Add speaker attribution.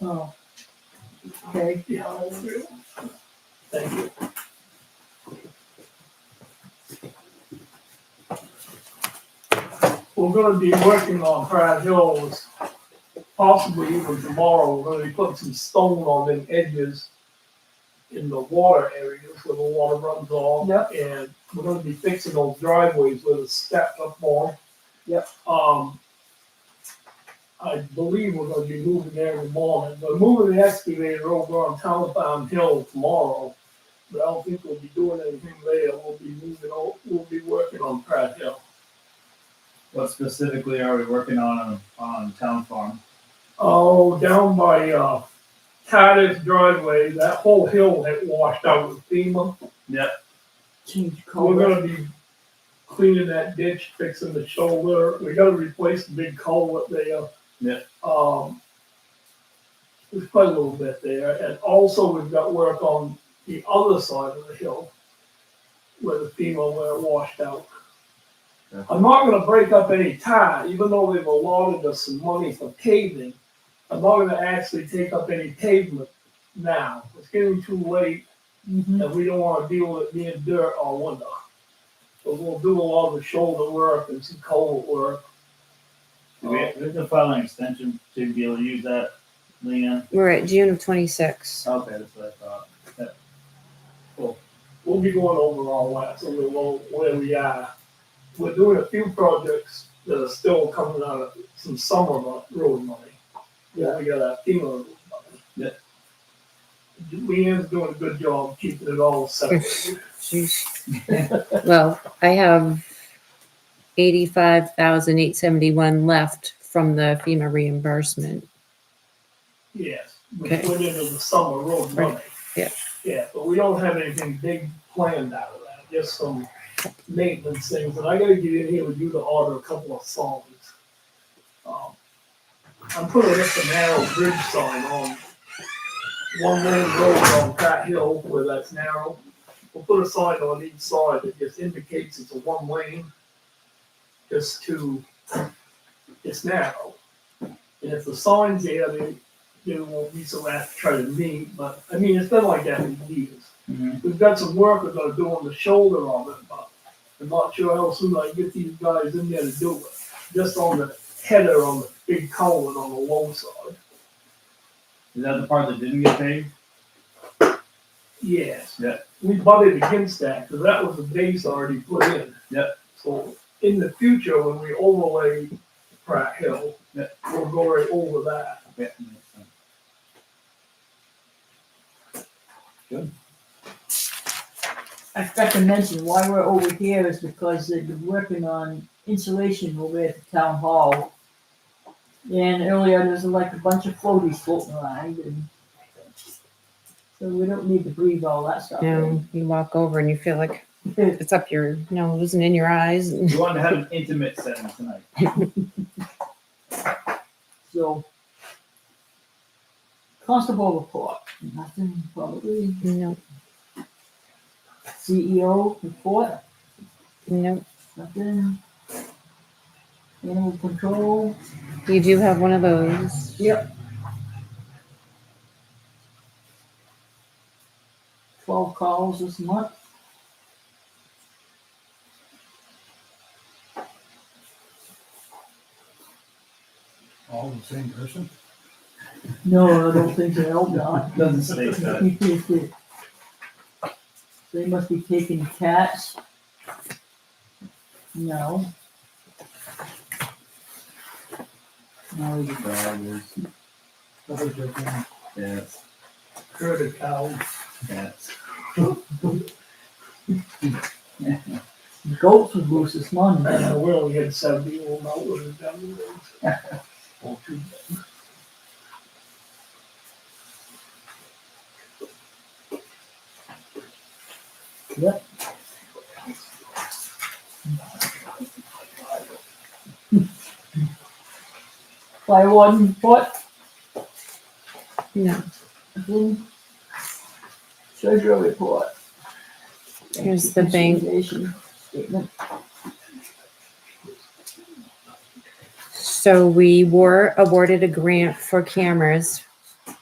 Speaker 1: Oh. Okay.
Speaker 2: Yeah. Thank you. We're gonna be working on Pratt Hills, possibly even tomorrow, we're gonna be putting some stone on them edges in the water areas where the water runs off.
Speaker 1: Yep.
Speaker 2: And we're gonna be fixing those driveways with a step up more.
Speaker 1: Yep.
Speaker 2: Um, I believe we're gonna be moving there every morning, but moving the excavator over on Talbot Hill tomorrow. But I don't think we'll be doing anything there, we'll be moving, o- we'll be working on Pratt Hill.
Speaker 3: What specifically are we working on on, on town farm?
Speaker 2: Oh, down by uh Titus driveway, that whole hill had washed out with FEMA.
Speaker 1: Change
Speaker 2: We're
Speaker 1: color.
Speaker 2: gonna be cleaning that ditch, fixing the shoulder. We gotta replace the big culvert there.
Speaker 3: Yeah.
Speaker 2: Um, there's quite a little bit there, and also we've got work on the other side of the hill where the FEMA where it washed out.
Speaker 3: Yeah.
Speaker 2: I'm not gonna break up any tie, even though they've allotted us some money for paving. I'm not gonna actually take up any pavement now. It's getting too late
Speaker 1: Mhm.
Speaker 2: and we don't wanna deal with it being dirt all winter. So we'll do a lot of the shoulder work and some cold work.
Speaker 3: Do we, we have to file an extension to be able to use that, Leanne?
Speaker 4: We're at June of twenty-six.
Speaker 3: Okay, that's what I thought.
Speaker 2: We'll be going over all that, so we'll know where we are. We're doing a few projects that are still coming out of some summer mo- road money. Yeah, we got a FEMA road money.
Speaker 3: Yeah.
Speaker 2: Leanne's doing a good job keeping it all separate.
Speaker 4: Jeez. Well, I have eighty-five thousand eight seventy-one left from the FEMA reimbursement.
Speaker 2: Yes, we
Speaker 4: Okay.
Speaker 2: went into the summer road
Speaker 4: Right.
Speaker 2: money.
Speaker 4: Yeah.
Speaker 2: Yeah, but we don't have anything big planned out of that, just some maintenance things, and I gotta get in here with you to order a couple of songs. Um, I'm putting up a narrow bridge sign on one lane road on Pratt Hill where that's narrow. We'll put a sign on each side that just indicates it's a one lane, just to, it's narrow. And if the sign's there, they, they won't be so apt to try to meet, but, I mean, it's been like that for years.
Speaker 3: Mhm.
Speaker 2: We've got some work we're gonna do on the shoulder of it, but I'm not sure how soon I can get these guys in there to do it. Just on the header on the big culvert on the low side.
Speaker 3: Is that the part that didn't get paid?
Speaker 2: Yes.
Speaker 3: Yeah.
Speaker 2: We butted against that, because that was the base already put in.
Speaker 3: Yeah.
Speaker 2: So in the future, when we overlay Pratt Hill,
Speaker 3: Yeah.
Speaker 2: we'll go right over that.
Speaker 3: Yeah, makes sense.
Speaker 1: I forgot to mention, why we're over here is because they've been working on insulation over at the town hall. And earlier, there's like a bunch of floaties floating around and. So we don't need to breathe all that stuff in.
Speaker 4: Now, you walk over and you feel like it's up your nose and in your eyes. and-
Speaker 3: We wanted to have an intimate setting tonight.
Speaker 1: So. Constable report, nothing probably.
Speaker 4: No,
Speaker 1: CEO report,
Speaker 4: no.
Speaker 1: nothing. Animal control.
Speaker 4: You do have one of those.
Speaker 1: Yep. twelve calls this month.
Speaker 5: All the same person?
Speaker 1: No, I don't think they help not.
Speaker 3: Doesn't say that.
Speaker 1: They must be taking cats. No. No, you-
Speaker 5: Probably just one.
Speaker 3: Yes,
Speaker 2: Herd of cows.
Speaker 3: yes.
Speaker 1: goats was loose this morning.
Speaker 2: We only had seventy, we'll not with it down the road. Or two.
Speaker 1: Fire warden report,
Speaker 4: No.
Speaker 1: then treasurer report.
Speaker 4: Here's the bank.
Speaker 1: Reconciliation Statement,
Speaker 4: So we were awarded a grant for cameras